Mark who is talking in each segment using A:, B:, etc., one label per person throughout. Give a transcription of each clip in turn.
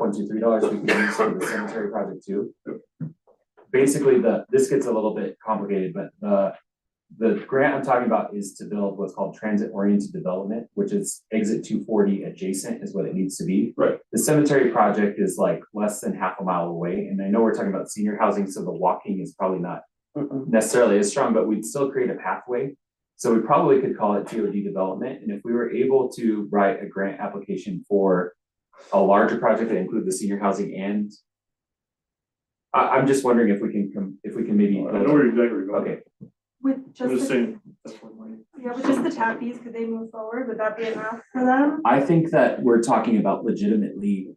A: point two three dollars we can use for the cemetery project too. Basically, the, this gets a little bit complicated, but the, the grant I'm talking about is to build what's called transit oriented development, which is exit two forty adjacent is what it needs to be.
B: Right.
A: The cemetery project is like less than half a mile away, and I know we're talking about senior housing, so the walking is probably not
C: Mm-mm.
A: necessarily as strong, but we'd still create a pathway. So we probably could call it TOD development, and if we were able to write a grant application for a larger project that included the senior housing and I, I'm just wondering if we can come, if we can
B: I
A: maybe.
B: know where exactly you're going.
A: Okay,
D: With
B: I'm
D: just
B: just
D: the,
B: saying, that's one way.
D: yeah, with just the tap fees, could they move forward? Would that be enough for them?
A: I think that we're talking about legitimately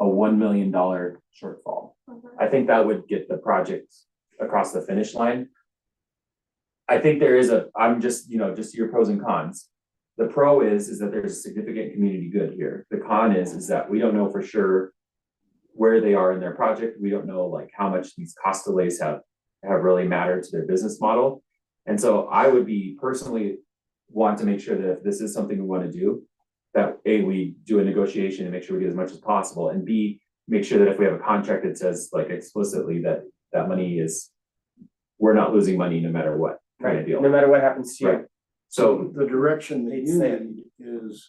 A: a one million dollar shortfall. I think that would get the project across the finish line. I think there is a, I'm just, you know, just your pros and cons. The pro is, is that there's a significant community good here. The con is, is that we don't know for sure where they are in their project. We don't know like how much these cost delays have, have really mattered to their business model. And so I would be personally want to make sure that if this is something we want to do, that A, we do a negotiation and make sure we get as much as possible, and B, make sure that if we have a contract that says like explicitly that that money is. We're not losing money no matter what kind of
C: Right,
A: deal.
C: no matter what happens to
A: Right.
C: you.
A: So
E: The direction that you
C: It's-
E: need is,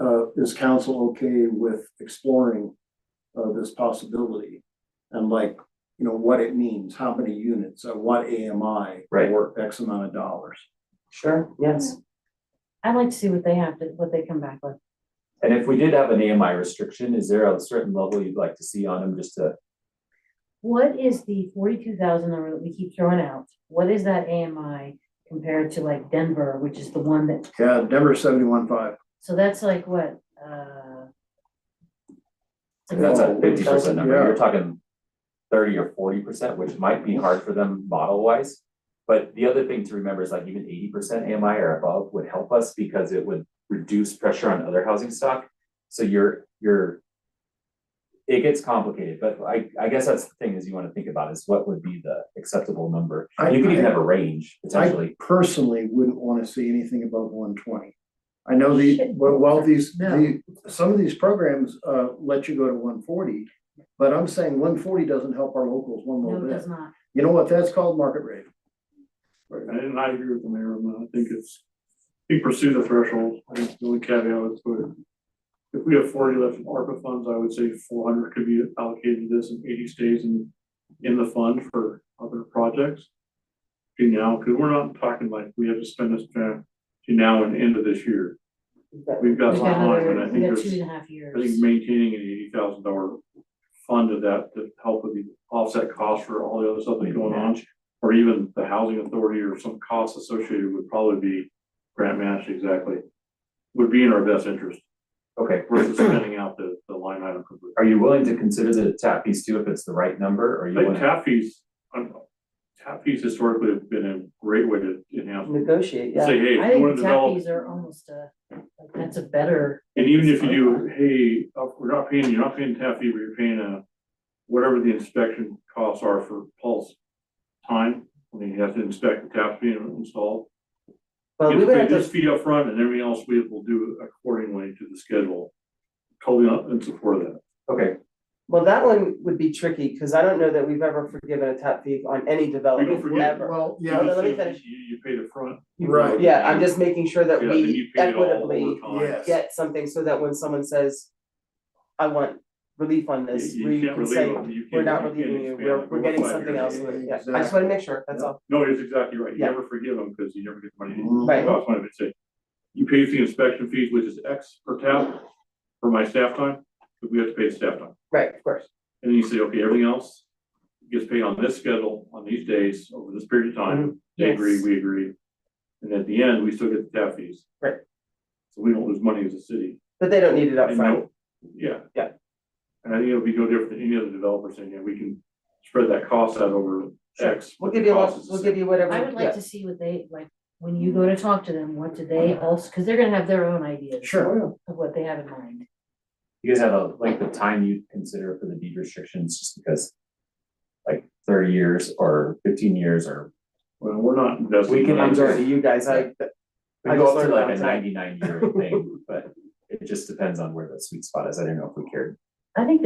E: uh, is council okay with exploring, uh, this possibility? And like, you know, what it means, how many units, uh, what AMI
A: Right.
E: for X amount of dollars.
C: Sure, yes.
F: I'd like to see what they have to, what they come back with.
A: and if we did have an AMI restriction, is there a certain level you'd like to see on them just to?
F: What is the forty-two thousand number that we keep throwing out? What is that AMI compared to like Denver, which is the one that,
E: Yeah, Denver seventy-one five.
F: so that's like what, uh? it's like-
A: That's a fifty percent number. You're
E: Oh, Yeah.
A: talking thirty or forty percent, which might be hard for them model wise. But the other thing to remember is like even eighty percent AMI or above would help us because it would reduce pressure on other housing stock. So you're, you're. It gets complicated, but I, I guess that's the thing is you wanna think about is what would be the acceptable number.
E: I-
A: You could even
E: I-
A: have a range
E: I
A: potentially.
E: personally wouldn't wanna see anything above one twenty. I know the,
F: Shit.
E: well, while these,
F: No.
E: the, some of these programs, uh, let you go to one forty, but I'm saying one forty doesn't help our locals one
F: No,
E: little
F: it
E: bit.
F: does not.
E: You know what, that's called market rate.
B: And I agree with the mayor, on that. I think it's, you pursue the threshold, I think the only caveat is to it. If we have forty left in ARPA funds, I would say four hundred could be allocated to this and eighty stays in, in the fund for other projects. You know, because we're not talking like we have to spend this uh, to now and end of this year. We've got
F: We've got
B: one line,
F: another,
B: and I
F: we've
B: think
F: got
B: there's.
F: two and a half
B: I think
F: years.
B: maintaining an eighty thousand dollar fund of that to help with the offset cost for all the other stuff that's going on. Or even the housing authority or some costs associated would probably be grant matched exactly. Would be in our best interest
A: Okay,
B: versus spending out the, the line item completely.
A: are you willing to consider the tap piece too if it's the right number or you
B: Like
A: wanna?
B: tap fees, I'm, tap fees historically have been a great way to
C: Mm-hmm.
B: enhance.
C: Negotiate, yeah.
B: Say, hey,
F: I
B: if you
F: think
B: wanna
F: the tap
B: develop
F: fees are almost a, like, that's a better,
B: And even if you do, hey, uh, we're not paying, you're not paying tap fee, but you're paying a, whatever the inspection costs are for pulse time, when you have to inspect the tap fee and install.
C: Well, we
B: You
C: would
B: pay
C: have
B: this
C: to,
B: fee up front, and everything else we will do accordingly to the schedule. Totally up in support of that.
A: Okay,
C: well, that one would be tricky, because I don't know that we've ever forgiven a tap fee on any development
B: forgive it.
C: ever.
E: Well,
B: You
C: No,
E: yeah,
C: no, let me
B: just-
C: finish.
B: You, you paid up front.
E: Right.
C: Yeah, I'm just making sure that
B: Yeah, then
C: we
B: you paid it all
C: equitably
B: over time.
E: Yes.
C: get something so that when someone says, I want relief on this,
B: You- you
C: we
B: can't
C: can
B: relieve
C: say,
B: them. You
C: we're
B: can't-
C: not
B: you can't
C: relieving you,
B: expand
C: we're,
B: it
C: we're
B: over
C: getting
B: five
C: something
B: years.
C: else.
E: years.
C: Yeah, I just wanna make sure, that's all.
B: No, it's exactly right. You
C: Yeah.
B: never forgive them because you never get the money.
C: Right.
B: That's why I would say, you pay the inspection fees, which is X per tab for my staff time, but we have to pay the staff time.
C: Right, of course.
B: And then you say, okay, everything else gets paid on this schedule, on these days, over this period of time. They agree,
C: Mm-hmm. Yes.
B: we agree. And at the end, we still get the tap fees.
C: Right.
B: So we don't lose money as a city.
C: But they don't need it
B: And
C: upfront.
B: no- Yeah.
C: Yeah.
B: And I think it'll be no different than any other developer saying, yeah, we can spread that cost out over X. but
C: We'll
B: the
C: give you a,
B: cost
C: lot-
B: is the
C: we'll
B: same.
C: give you whatever.
F: I would
C: yeah.
F: like to see what they, like, when you go to talk to them, what do they also, because they're gonna have their own ideas
E: sure.
F: of what they have in mind.
A: you guys have a, like the time you consider for the deed restrictions just because. Like thirty years or fifteen years or
B: Well, we're not investing.
A: We can
B: money.
C: I'm sorry, you guys, I,
A: We
C: I
A: go
C: just
A: up to
C: learned
A: like a
C: about
A: ninety-nine year thing, but it just depends on where the sweet spot is. I don't know if we cared.
F: I think the